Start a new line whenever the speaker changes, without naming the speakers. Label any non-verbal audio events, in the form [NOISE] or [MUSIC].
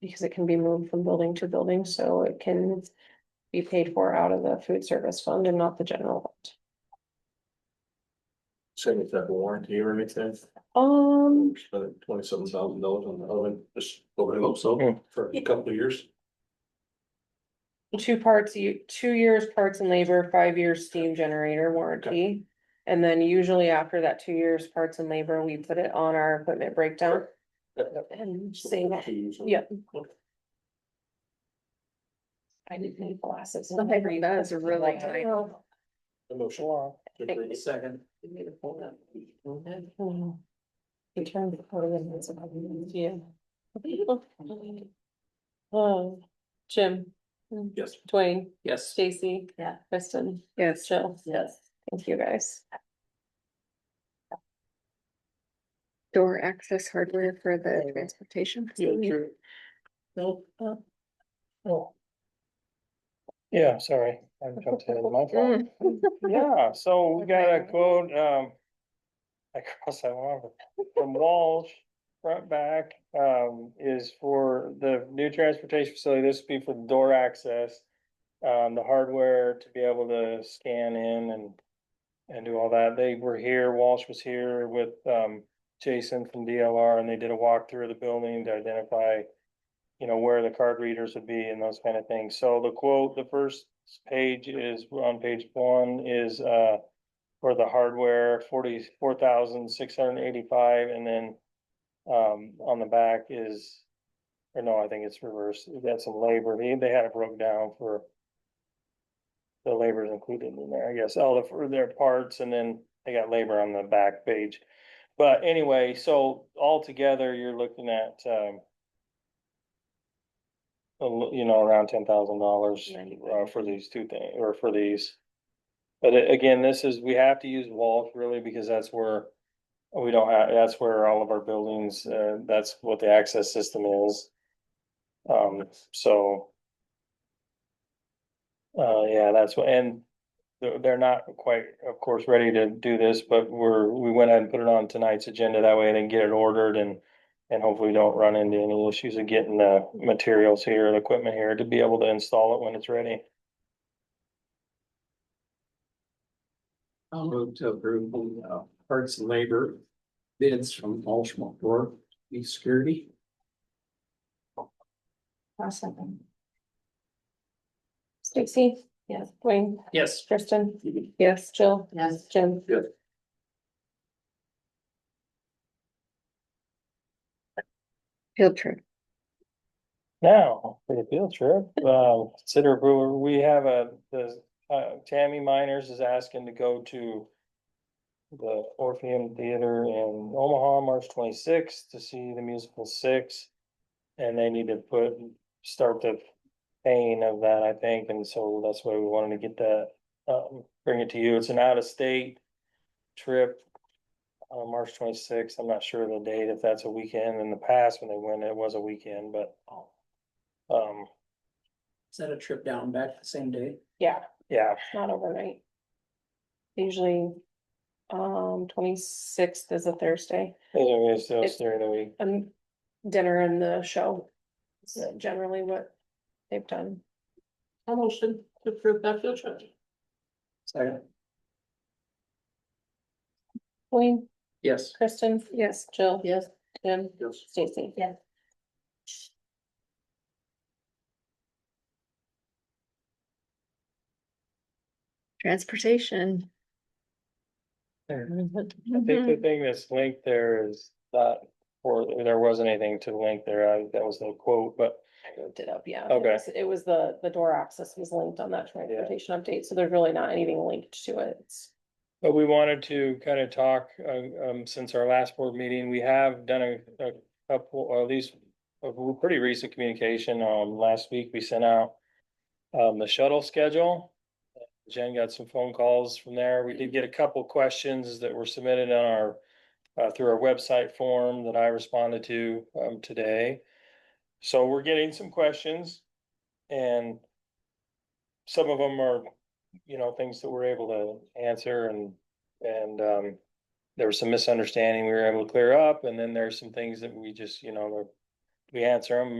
because it can be moved from building to building, so it can be paid for out of the food service fund and not the general. fund.
Same with that warranty or anything,
Um,
we spent twenty seven thousand dollars on the oven, just over the so for a couple of years.
Um, two parts, you, two years parts and labor, five years steam generator warranty. And then usually after that two years parts and labor, we put it on our equipment breakdown and save it. Yeah. I didn't need glasses.
That's a really
I
tight.
know.
Emotion. Second. Hmm?
Mhm. He turned the corner and it's about to be- yeah. Oh, Jim,
Yes.
Dwayne,
Yes.
Stacy.
Yeah.
Kristen,
Yes.
Jill,
Yes.
thank you guys.
Door access hardware for the transportation. facility.
Oh. Yeah, sorry, I jumped ahead of my
[LAUGHS]
fault.
Mm,
Yeah, so we got a
Okay.
quote, um. I crossed that one off, from Walsh, front back, um, is for the new transportation facility, this would be for door access. Um, the hardware to be able to scan in and, and do all that, they were here, Walsh was here with, um. Jason from DLR and they did a walkthrough of the building to identify. You know, where the card readers would be and those kind of things. So the quote, the first page is, on page one is, uh. For the hardware, forty-four thousand, six hundred and eighty-five, and then, um, on the back is. Or no, I think it's reversed. That's some labor. They, they had it broke down for. The labor is included in there, I guess, all the, for their parts, and then they got labor on the back page. But anyway, so altogether, you're looking at, um. a lo- you know, around ten thousand dollars, uh, for these two things, or for these. But a- again, this is, we have to use Walsh really, because that's where. We don't have, that's where all of our buildings, uh, that's what the access system is. Um, so. Uh, yeah, that's what, and they're, they're not quite, of course, ready to do this, but we're, we went ahead and put it on tonight's agenda. That way I can get it ordered and. And hopefully don't run into any issues of getting the materials here, the equipment here to be able to install it when it's ready.
I'll move to approve the uh, parts and labor bids from Ultimate for the security.
Stacy. Yes. Dwayne,
Yes.
Kristen. Yes. Jill.
Yes.
Jim.
Yes.
Field trip.
Now, for the field trip, uh, consider approval, we have a, the, uh, Tammy Miners is asking to go to. The Orpheum Theater in Omaha, March twenty-sixth, to see the musical Six. And they need to put, start the pain of that, I think, and so that's why we wanted to get that, um, bring it to you, it's an out-of-state. Trip. Uh, March twenty-sixth, I'm not sure of the date, if that's a weekend, in the past when they went, it was a weekend, but. Um,
Is that a trip down and back the same day?
Yeah,
yeah,
not overnight. Usually, um, twenty-sixth is a Thursday
anyways, so it's
It-
during the week.
and dinner and the show. It's generally what they've done.
Second.
Dwayne,
Yes.
Kristen.
Yes.
Jill.
Yes.
Jim.
Yes.
Stacy.
Yes. Transportation.
I think the thing that's linked there is not, or there wasn't anything to link there, I, that was the quote, but.
I looked it up, yeah.
Okay.
It was- It was the, the door access was linked on that transportation update, so there's really not anything linked to it. It's-
But we wanted to kind of talk, uh, um, since our last board meeting, we have done a, a couple, or at least a pretty recent communication. Um, last week, we sent out um, the shuttle schedule. Jen got some phone calls from there. We did get a couple questions that were submitted on our, uh, through our website form that I responded to, um, today. So we're getting some questions and some of them are you know, things that we're able to answer and, and, um. There was some misunderstanding we were able to clear up, and then there's some things that we just, you know, we answer them